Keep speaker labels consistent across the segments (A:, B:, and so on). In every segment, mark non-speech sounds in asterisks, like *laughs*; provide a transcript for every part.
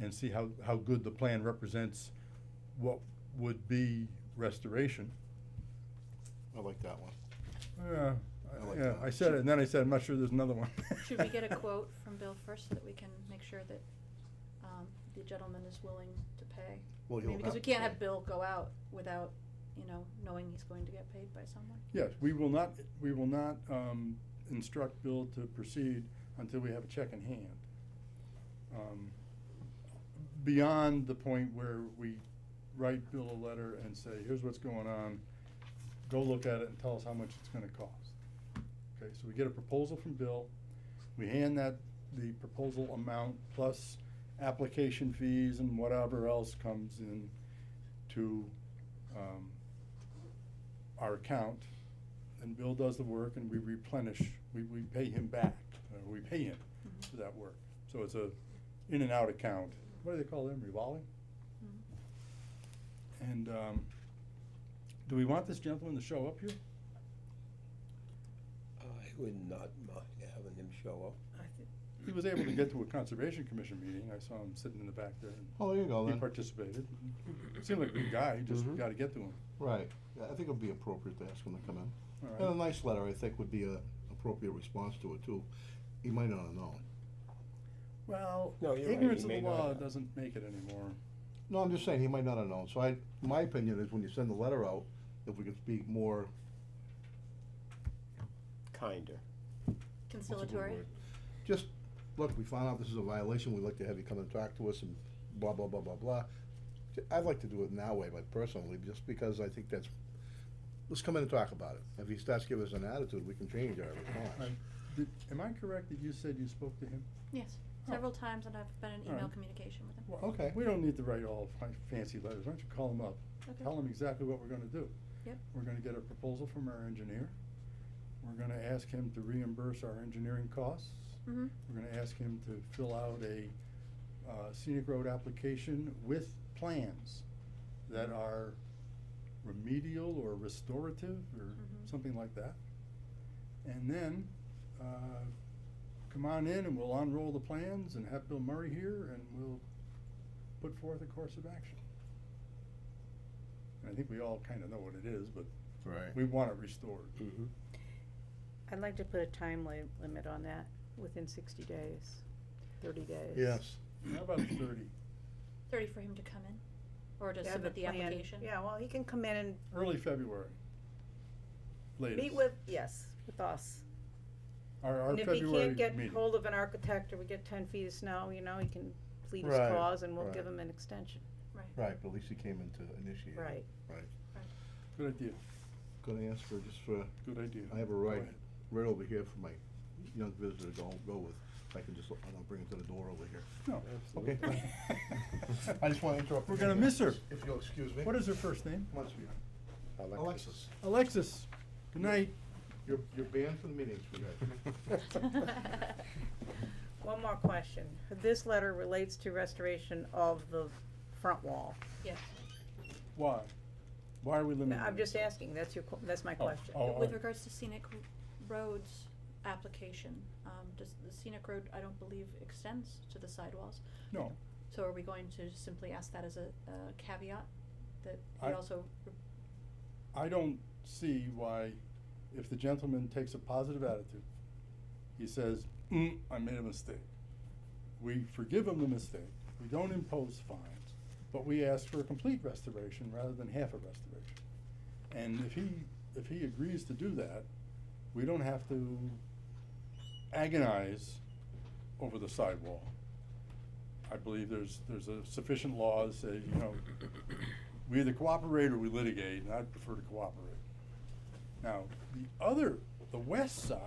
A: and see how, how good the plan represents what would be restoration.
B: I like that one.
A: Yeah,
B: I like
A: yeah,
B: that.
A: I said it, and then I said, I'm not sure there's another one.
C: Should we get
A: *laughs*
C: a quote from Bill first so that we can make sure that, um, the gentleman is willing to pay?
B: Well,
C: I mean,
B: you'll
C: because we
B: have to
C: can't
B: pay.
C: have Bill go out without, you know, knowing he's going to get paid by someone.
A: Yes, we will not, we will not, um, instruct Bill to proceed until we have a check in hand. Um, Beyond the point where we write Bill a letter and say, here's what's going on, go look at it and tell us how much it's gonna cost. Okay, so we get a proposal from Bill, we hand that, the proposal amount plus application fees and whatever else comes in to, um, our account, and Bill does the work, and we replenish, we, we pay him back, or we pay him
C: Mhm.
A: for that work. So it's a in and out account, what do they call them, revolving?
C: Mhm.
A: And, um, do we want this gentleman to show up here?
D: I would not mind having him show up.
A: He was able to get to a conservation commission meeting, I saw him sitting in the back there, and
B: Oh, there you go
A: he
B: then.
A: participated. Seemed like a good guy, you just
B: Mhm.
A: gotta get to him,
B: Right. Yeah, I think it'd be appropriate to ask him to come in. And a
A: alright?
B: nice letter, I think, would be a appropriate response to it too. He might not have known.
A: Well,
D: No, you're right,
A: ignorance
D: he
A: of the
D: may not
A: law
D: have.
A: doesn't make it anymore.
B: No, I'm just saying, he might not have known. So I, my opinion is when you send the letter out, if we could speak more,
D: Kinder.
B: what's a good
C: Conciliatory,
B: word? Just, look, we found out this is a violation, we'd like to have you come and talk to us and blah, blah, blah, blah, blah. J- I'd like to do it in that way, but personally, just because I think that's, let's come in and talk about it. If he starts giving us an attitude, we can change our response.
A: Right. Did, am I correct that you said you spoke to him?
C: yes,
A: Oh.
C: several times, and I've been in email
A: Alright.
C: communication with him.
A: Well,
B: Okay.
A: We don't need to write all fin- fancy letters, why don't you call them up?
C: Okay.
A: Tell them exactly what we're gonna do.
C: Yep.
A: We're gonna get a proposal from our engineer. We're gonna ask him to reimburse our engineering costs.
C: Mhm.
A: We're gonna ask him to fill out a uh, scenic road application with plans that
E: Mm-hmm.
A: are remedial or restorative or
E: Mm-hmm.
C: Mhm.
A: something like that. And then, uh, come on in and we'll unroll the plans and have Bill Murray here and we'll put forth a course of action. And I think we all kind of know what it is, but
B: Right.
A: we want it restored.
D: Mm-hmm.
E: I'd like to put a time li- limit on that, within sixty days, thirty days.
B: Yes.
A: How about thirty?
C: Thirty for him to come in, or to
E: Yeah,
C: submit the
E: plan-
C: application?
E: Yeah, well, he can come in
A: Early February.
E: and
A: Latest.
E: meet with, yes, with us.
A: Our, our
E: And if he
A: February
E: can't get
A: meeting.
E: hold of an architect, or we get ten feet of snow, you know, he can plead his
B: Right,
E: cause and we'll
B: right.
E: give him an extension, *laughs*
B: Right, but at least he came in to initiate. it.
E: right?
A: Good idea,
B: Gonna ask for, just for,
A: good idea.
B: I have a
A: Go
B: right,
A: ahead.
B: right over here for my young visitor to go, go with. If I can just, I don't bring it to the door over here.
A: No,
B: Okay. *laughs*
A: *laughs*
B: I just wanna interrupt.
A: We're gonna miss her.
B: If you'll excuse me.
A: What is her first name?
B: Come on, sweetheart. Alexis,
A: Alexis. Good night.
B: you're, you're banned from the meetings, sweetheart.
C: Right.
E: One more question. This letter relates to restoration of the front wall.
C: *laughs* Yes.
A: Why? Why are we limiting?
E: I'm
A: this?
E: just asking, that's your, que- that's my
A: Oh,
E: question.
A: oh, all
C: With
A: right.
C: regards to scenic r- roads application, um, does the scenic road, I don't believe extends to the sidewalls.
A: No,
C: So are we going to simply ask that as a, a caveat, that we
A: I-
C: also, re-
A: I don't see why, if the gentleman takes a positive attitude, he says, mm, I made a mistake. We forgive him the mistake, we don't impose fines, but we ask for a complete restoration rather than half a restoration. And if he, if he agrees to do that, we don't have to agonize over the sidewall. I believe there's, there's a sufficient law that says, you know, we either cooperate or we litigate, and I'd prefer to cooperate. Now, the other, the west side,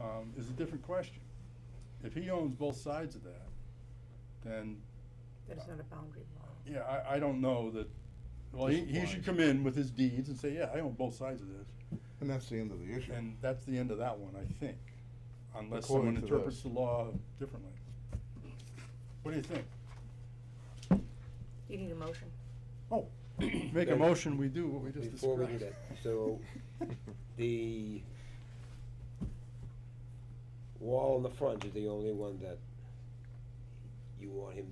A: um, is a different question. If he owns both sides of that, then,
E: That is not a boundary wall.
A: yeah, I, I don't know that, well, he, he should come in with his deeds and say, yeah, I own both sides of this.
B: *laughs* And that's the end of the issue.
A: And that's the end of that one, I think, unless someone
B: According to this.
A: interprets the law differently. What do you think?
E: You need a motion.
A: Oh, make a
D: *coughs* No,
A: motion, we do what we just
D: before we do
A: described.
D: that, so *laughs*
B: *laughs*
D: The wall in the front is the only one that you want him to